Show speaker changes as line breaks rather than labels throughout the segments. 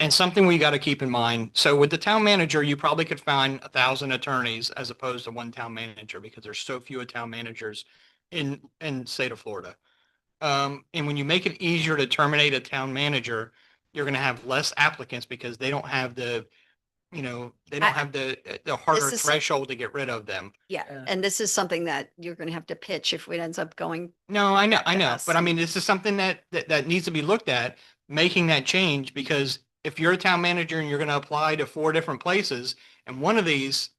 And something we got to keep in mind, so with the town manager, you probably could find a thousand attorneys as opposed to one town manager because there's so few town managers in, in state of Florida. Um, and when you make it easier to terminate a town manager, you're going to have less applicants because they don't have the, you know, they
I-
don't have the, the harder
This is-
threshold to get rid of them.
Yeah,
Yeah.
and this is something that you're gonna have to pitch if it ends up going,
No, I know, I
to
know,
us.
but I mean, this is something that, that, that needs to be looked at, making that change, because if you're a town manager and you're gonna apply to four different places, and one of these,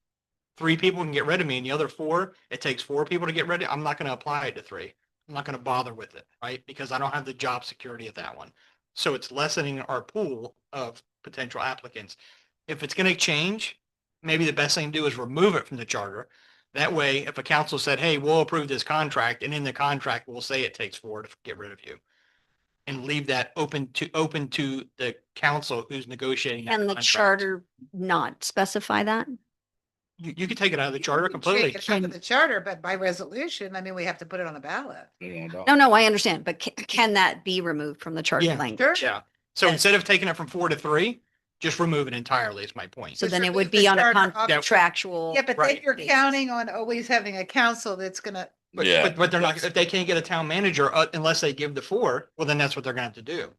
three people can get rid of me, and the other four, it takes four people to get rid of, I'm not gonna apply to three. I'm not gonna bother with it, right? Because I don't have the job security of that one. So it's lessening our pool of potential applicants. If it's gonna change, maybe the best thing to do is remove it from the charter, that way, if a council said, hey, we'll approve this contract, and in the contract, we'll say it takes four to get rid of you. And leave that open to, open to the council who's negotiating. that
can the
contract. Oh.
charter not specify that?
You, you could take it out of the charter
You can take
completely.
it out of The charter, but by resolution, I mean, we have to put it on the ballot.
No, no, I understand, but can, can that be removed from the charter
Yeah.
language?
Sure.
Yeah. So instead of taking it from four to three, just remove it entirely is my point.
So
Just
then it
remove
would
the
be on a
charter
con-
off-
Yeah.
contractual.
Yeah, but then
Right.
you're
basis.
counting on always having a council that's gonna,
But,
Yeah.
but, but they're not, if they can't get a town manager, uh, unless they give the four, well, then that's what they're gonna have to do.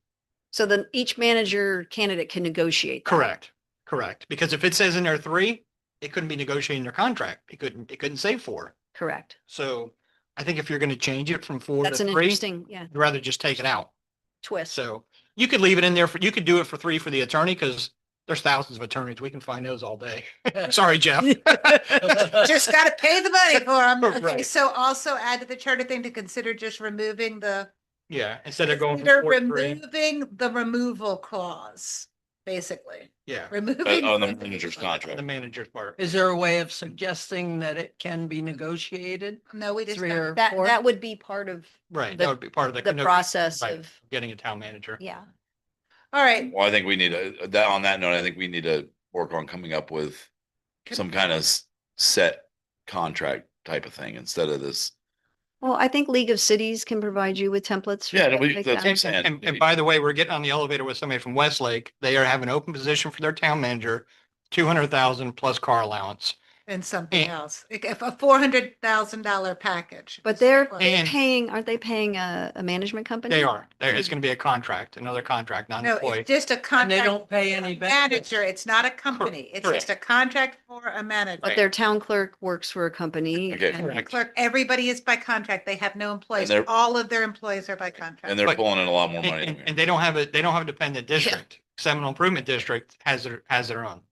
So then each manager candidate can negotiate. that.
Correct, correct. Because if it says in there three, it couldn't be negotiating their contract. It couldn't, it couldn't say four.
Correct.
So I think if you're gonna change it from four to
That's an
three, you'd
interesting, yeah,
rather just take it out.
twist.
So you could leave it in there for, you could do it for three for the attorney because there's thousands of attorneys. We can find those all day. Sorry, Jeff.
just gotta pay the money for them.
Right.
So also add to the charter thing to consider just removing the,
Yeah, instead of going
consider
from four to three.
removing the removal clause, basically,
Yeah,
removing.
uh, on oh, the manager's contract.
the manager's part.
Is there a way of suggesting that it can be negotiated?
No, we just.
Three or
That,
four?
that would be part of
Right,
The-
that would be part of the.
the
no,
process
right,
of,
Getting a town manager.
yeah.
All right.
Well, I think we need a, that, on that note, I think we need to work on coming up with some kind of s- set contract type of thing instead of this.
Well, I think League of Cities can provide you with templates. for
Yeah,
that,
we-
like
that's-
that.
And, and- and- and
Maybe.
by the way, we're getting on the elevator with somebody from Westlake. They are having an open position for their town manager, two hundred thousand plus car allowance.
And something
And-
else, Like, if a four hundred thousand dollar package.
But they're
Well,
they're
And-
paying, aren't they paying a, a management company?
They are, there, it's gonna be a contract, another contract, not an
No,
employee.
it's just a
And
contract.
they don't pay any benefits?
Manager, it's not a company. It's just a contract for a
But
manager.
their town clerk works for a company.
Okay.
and-
Correct.
Clerk, everybody is by contract. They have no employees.
they're-
All of their employees are by contract.
And they're
But-
pulling in a lot more
And,
money. than
and-
we are.
and they don't have a, they don't have a dependent district. Seminole Improvement District has their, has their own,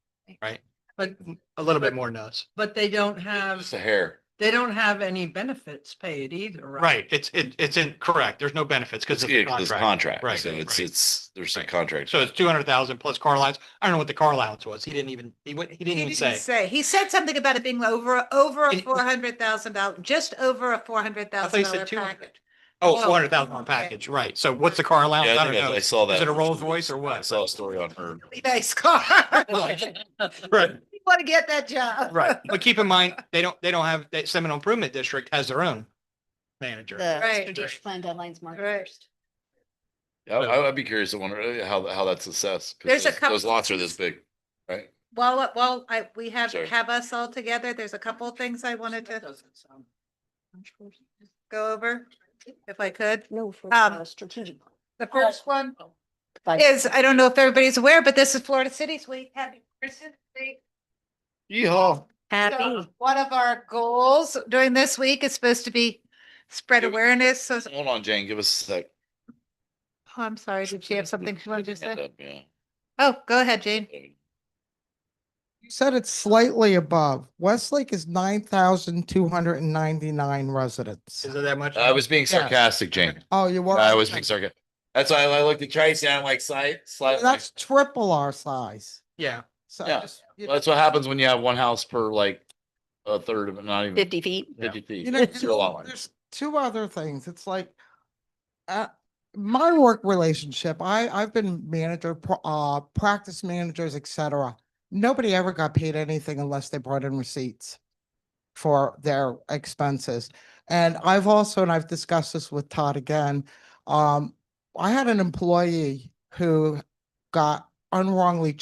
right?
But,
A little bit more than us.
but they don't
Just
have,
a hair.
they don't have any benefits paid either, right?
Right, it's, it, it's in, correct, there's no benefits because
It's
it's a
it's
contract.
contract.
Right,
So it's,
right.
it's, there's some
Right.
contract.
So it's two hundred thousand plus car allowance. I don't know what the car allowance was. He didn't even, he went, he didn't
He
even
didn't
say.
say, he said something about it being over, over a
It-
four hundred thousand dollar, just over a four hundred
I thought
thousand
you said
dollar
200.
package.
Oh,
Whoa.
four hundred thousand on
Okay.
package, right. So what's the car allowance?
Yeah,
I
I
don't
think I I
know.
saw that.
Is it a
on
Rolls
Twitter.
Royce or
I
what?
saw a story on her.
Really Nice car.
Right,
You Want to get that job.
right. But keep in mind, they don't, they don't have, that Seminole Improvement District has their own manager.
The
Right.
strategic plan deadlines mark
Right.
first.
Yeah, I, I'd be curious to wonder how, how that's assessed. 'cause
There's a
those- Those
couple-
lots are this big, right?
Well, well, I, we have,
Sorry.
have us all together. There's a couple of things I wanted
That
to
doesn't sound-
go over, if I could.
No, for
Um,
uh, strategic. plan.
The first one
Five-
is, I don't know if everybody's aware, but this is Florida Cities Week. Happy Florida Cities Week.
Yeehaw.
Happy.
So One of our goals during this week is supposed to be spread
Give it-
awareness. So,
Hold on, Jane, give us a sec.
oh, I'm sorry, did she have something she wanted to
Hand
say?
up, Yeah.
Oh, go ahead, Jane.
You said it's slightly above. Westlake is nine thousand two hundred and ninety-nine residents.
Is it that much?
I was being
Yeah.
sarcastic, Jane.
Oh, you were.
I was being sarcastic. That's why I looked at Tracy and I'm like, slight, slight.
That's triple our size.
Yeah,
So
Yeah.
just- you
That's what happens when you have one house per like a third of it, not even
Fifty feet.
fifty
you
feet.
know,
It's your lot line.
there's two other things. It's like, uh, my work relationship, I, I've been manager, pr- uh, practice managers, et cetera. Nobody ever got paid anything unless they brought in receipts for their expenses. And I've also, and I've discussed this with Todd again, um, I had an employee who got unwrongly